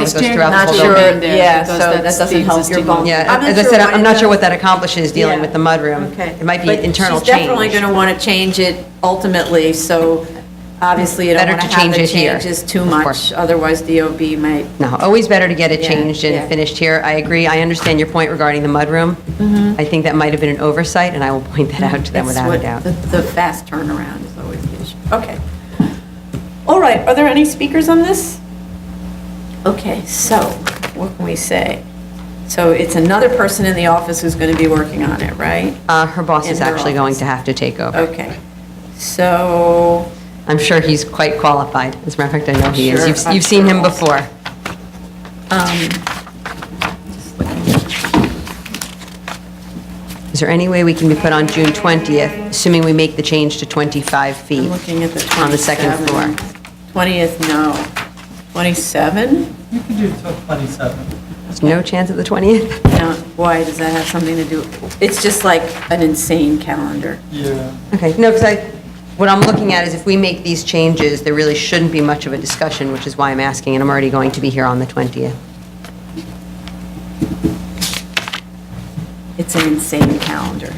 It goes It's throughout the not whole sure, building. building. yeah, so because that that's the doesn't help your existing vulnerable. one. Yeah, I'm not as I sure said, I'm not it sure what does. that accomplishes, dealing Yeah. with the mudroom. Okay. It might be an But internal She's definitely going change. to want to change it ultimately, so obviously you don't Better want to to have change the it here, changes too of much, course. otherwise DOB might, No, always better to get it Yeah, changed yeah. and finished here. I agree, I understand your point regarding the mudroom. I think that might have been an oversight, and I will point that out to them Mm-hmm. without that's a what, doubt. the the fast turnaround is always the issue. Okay. All right, are there any speakers on this? Okay, so what can we say? So it's another person in the office who's going to be working on it, right? Uh, Her boss In is her actually going office. to have to take over. Okay, so I'm sure he's quite qualified. As a matter of fact, I know he is. Sure, You've- I'm You've seen sure him also. before. um, Is there any way we can be put on June 20th, assuming we make the change to 25 feet? I'm looking at the 27. On the second floor. 20th, no. 27? You can do till 27. There's no chance at the 20th? No, why, does that have something to do? It's just like an insane calendar. Yeah. Okay, no, because I, what I'm looking at is if we make these changes, there really shouldn't be much of a discussion, which is why I'm asking, and I'm already going to be here on the 20th. It's an insane calendar.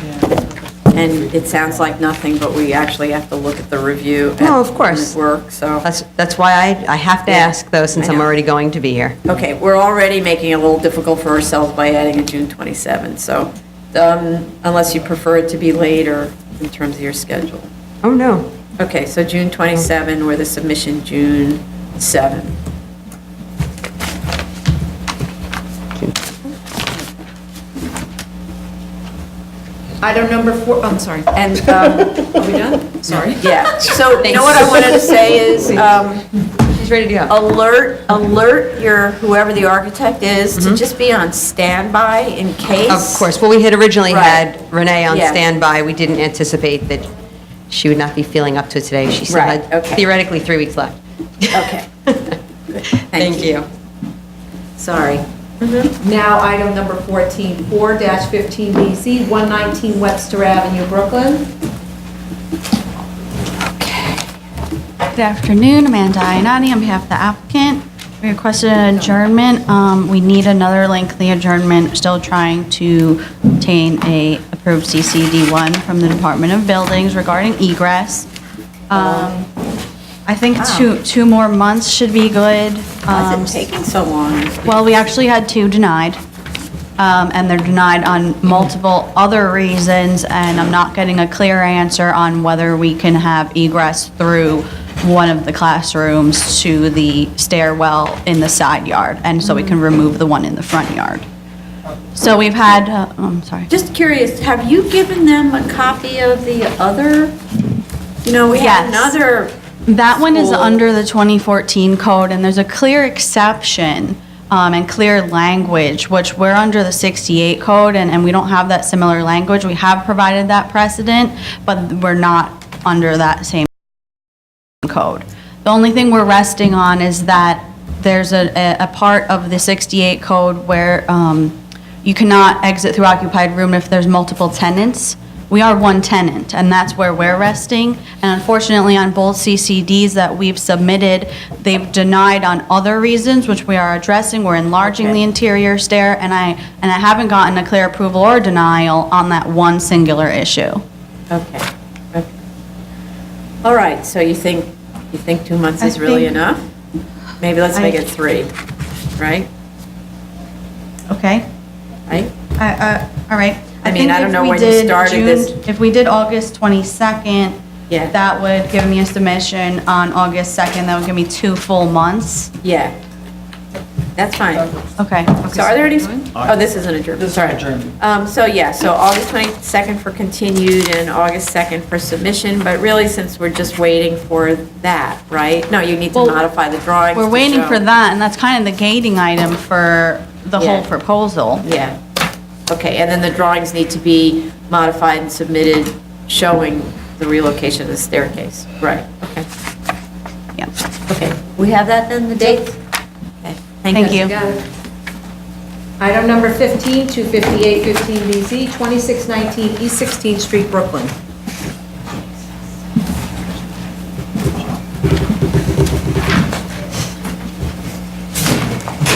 And it sounds like nothing, but we actually have to look at the review. and- No, of course. and Work, so. That's, that's why I, I have to Yeah, ask, though, since I I'm know. already going to be here. Okay, we're already making it a little difficult for ourselves by adding a June 27, so um, unless you prefer it to be later in terms of your schedule. Oh, no. Okay, so June 27, with a submission June 7. Item number four, I'm sorry. And, um, are we done? Sorry. Yeah, so you know what I wanted to say is, um, He's ready to go. alert, alert your, whoever the architect is, to just be on standby in case. Of course, well, we had originally Right. had Renee on Yeah. standby. We didn't anticipate that she would not be feeling up to it today. She still Right, had okay. theoretically three weeks left. Okay. Thank you. Sorry. Now, item number 14, 4-15 BZ, 119 Webster Avenue, Brooklyn. Good afternoon, Amanda Ianati, on behalf of the applicant. We requested an adjournment. Um, We need another lengthy adjournment, still trying to obtain a approved CCD1 from the Department of Buildings regarding egress. Um, I think two, two more months should be good. Why Um, is it taking so long? well, we actually had two denied, um, and they're denied on multiple other reasons, and I'm not getting a clear answer on whether we can have egress through one of the classrooms to the stairwell in the side yard, and so we can remove the one in the front yard. So we've had, uh, oh, I'm sorry. Just curious, have you given them a copy of the other? You know, we had Yes. another, That one is School. under the 2014 code, and there's a clear exception um, and clear language, which we're under the 68 code, and, and we don't have that similar language. We have provided that precedent, but we're not under that same code. The only thing we're resting on is that there's a, a- a part of the 68 code where um, you cannot exit through occupied room if there's multiple tenants. We are one tenant, and that's where we're resting. And unfortunately, on both CCDs that we've submitted, they've denied on other reasons, which we are addressing. We're enlarging the interior stair, and I, and I haven't gotten a clear approval or denial on that one singular issue. okay. okay. All right, so you think, you think two months I is really think- enough? Maybe let's I- make it three, right? Okay? Right? I- I- All right. I mean, think I don't if know we when you did started June- this. If we did August 22nd, Yeah. that would give me a submission on August 2nd. That would give me two full months. Yeah. That's fine. Okay. So are there any, oh, this isn't adjourned, This is sorry. adjourned. Um, so yeah, so August 22nd for continued and August 2nd for submission, but really since we're just waiting for that, right? No, you need to Well, modify the drawings. We're to waiting show- for that, and that's kind of the gating item for the whole Yeah. proposal. Yeah. Okay, and then the drawings need to be modified and submitted showing the relocation of the staircase. Right, okay. Yeah. Okay, we have that then, the dates? Okay, Thank you. Got it. Item number 15, 258 15 BZ, 2619 East 16th Street, Brooklyn.